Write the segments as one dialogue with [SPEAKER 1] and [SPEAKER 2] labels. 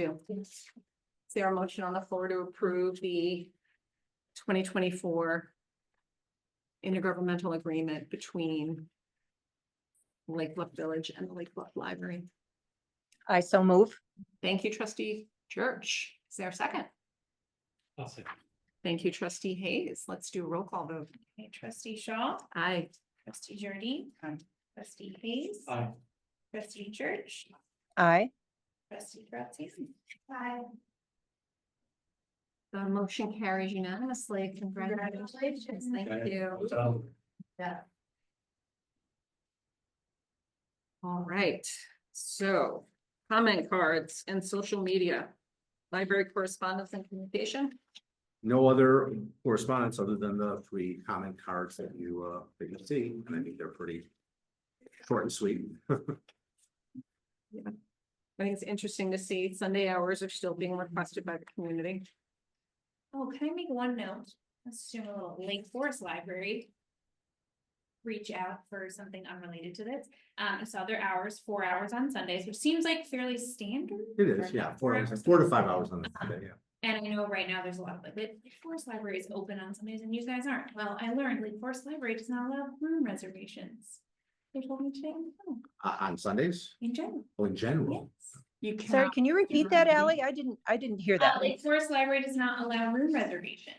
[SPEAKER 1] do. Is there a motion on the floor to approve the twenty twenty-four intergovernmental agreement between Lake Bluff Village and the Lake Bluff Library?
[SPEAKER 2] I so move.
[SPEAKER 1] Thank you, trustee Church. Is there a second?
[SPEAKER 3] I'll second.
[SPEAKER 1] Thank you, trustee Hayes. Let's do a roll call vote.
[SPEAKER 4] Okay, trustee Shaw,
[SPEAKER 1] Aye.
[SPEAKER 4] trustee Jordan. Trustee Hayes.
[SPEAKER 3] Aye.
[SPEAKER 4] Trustee Church,
[SPEAKER 2] I,
[SPEAKER 4] trustee Graziano. Hi.
[SPEAKER 1] The motion carries unanimously. Congratulations. Thank
[SPEAKER 3] Okay.
[SPEAKER 1] you.
[SPEAKER 3] Um,
[SPEAKER 1] All right, so comment cards and social media, library correspondence and communication.
[SPEAKER 5] No other correspondence other than the three comment cards that you, uh, that you see, and I think they're pretty short and sweet.
[SPEAKER 1] I think it's interesting to see Sunday hours are still being requested by the community.
[SPEAKER 4] Oh, can I make one note? Let's do a little Lake Forest Library. Reach out for something unrelated to this. Um, I saw their hours, four hours on Sundays, which seems like fairly standard.
[SPEAKER 5] It is, yeah, four hours, four to five hours on the day, yeah.
[SPEAKER 4] And I know right now there's a lot of like, Lake Forest Library is open on Sundays and you guys aren't. Well, I learned Lake Forest Library does not allow room reservations. They told me today, oh,
[SPEAKER 5] Uh, on Sundays,
[SPEAKER 4] in general,
[SPEAKER 5] well, in
[SPEAKER 4] yes.
[SPEAKER 5] general,
[SPEAKER 1] You can,
[SPEAKER 2] sorry, can you repeat that, Ally? I didn't, I didn't hear
[SPEAKER 4] Uh,
[SPEAKER 2] that.
[SPEAKER 4] Lake Forest Library does not allow room reservations.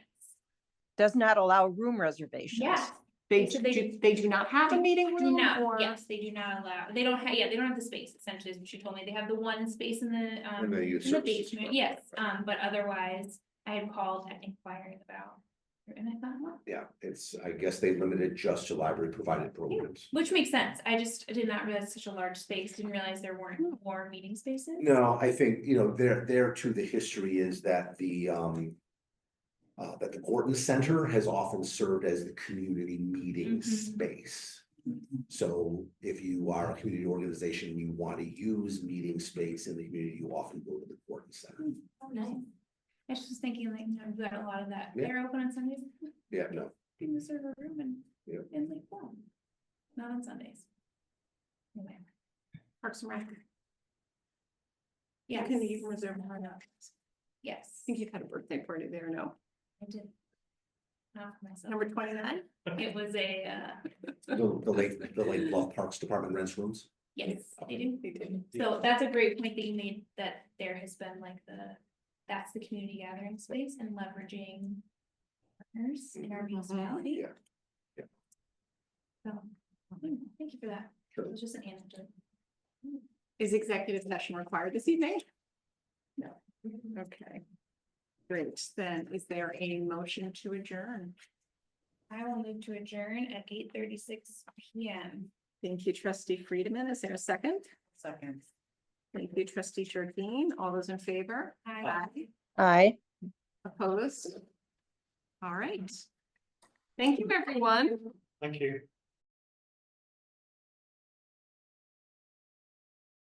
[SPEAKER 2] Does not allow room reservations.
[SPEAKER 4] Yes,
[SPEAKER 1] they,
[SPEAKER 4] So they-
[SPEAKER 1] do- they do not have a meeting
[SPEAKER 4] do
[SPEAKER 1] room
[SPEAKER 4] not,
[SPEAKER 1] or,
[SPEAKER 4] yes, they do not allow, they don't have, yeah, they don't have the space essentially, is what she told me. They have the one space in the, um,
[SPEAKER 5] And they
[SPEAKER 4] in
[SPEAKER 5] use
[SPEAKER 4] the
[SPEAKER 5] services
[SPEAKER 4] basement,
[SPEAKER 5] for-
[SPEAKER 4] yes, um, but otherwise, I had called and inquiring about. And I thought, well,
[SPEAKER 5] yeah, it's, I guess they limited just to library provided programs.
[SPEAKER 4] Which makes sense. I just did not realize such a large space, didn't realize there weren't more meeting spaces.
[SPEAKER 5] No, I think, you know, there, there too, the history is that the, um. Uh, that the Gorton Center has often served as the community meeting
[SPEAKER 4] Mhm.
[SPEAKER 5] space. So if you are a community organization, and you want to use meeting space in the community, you often go to the Gorton Center.
[SPEAKER 4] Oh, nice. I was just thinking like, you know, we got a lot of that.
[SPEAKER 5] Yeah.
[SPEAKER 4] They're open on Sundays,
[SPEAKER 5] Yeah, no,
[SPEAKER 4] in the server room and,
[SPEAKER 5] Yeah.
[SPEAKER 4] and like, well, not on Sundays. Anyway,
[SPEAKER 1] Parks and Rec. You
[SPEAKER 4] Yes.
[SPEAKER 1] can even reserve more now. I
[SPEAKER 4] Yes.
[SPEAKER 1] think you've had a birthday party there, no?
[SPEAKER 4] I did. Not for myself.
[SPEAKER 1] Number twenty-nine?
[SPEAKER 4] It was a, uh,
[SPEAKER 5] the, the Lake, the Lake Bluff Parks Department rents rooms.
[SPEAKER 4] yes, they do.
[SPEAKER 1] They did.
[SPEAKER 4] So that's a great point that you made, that there has been like the, that's the community gathering space and leveraging partners in our
[SPEAKER 1] Mhm.
[SPEAKER 4] municipality.
[SPEAKER 5] Yeah. Yeah.
[SPEAKER 4] So, hmm, thank you for that.
[SPEAKER 5] Sure.
[SPEAKER 4] It was just an anecdote.
[SPEAKER 1] Is executive session required this evening?
[SPEAKER 4] No.
[SPEAKER 1] Mm-hmm. Okay. Great, then is there a motion to adjourn?
[SPEAKER 4] I will move to adjourn at eight thirty-six PM.
[SPEAKER 1] Thank you, trustee Friedman. Is there a second? Second. Thank you, trustee Jardine. All those in favor?
[SPEAKER 4] Hi.
[SPEAKER 2] I.
[SPEAKER 1] Opposed? All right. Thank you, everyone.
[SPEAKER 3] Thank you.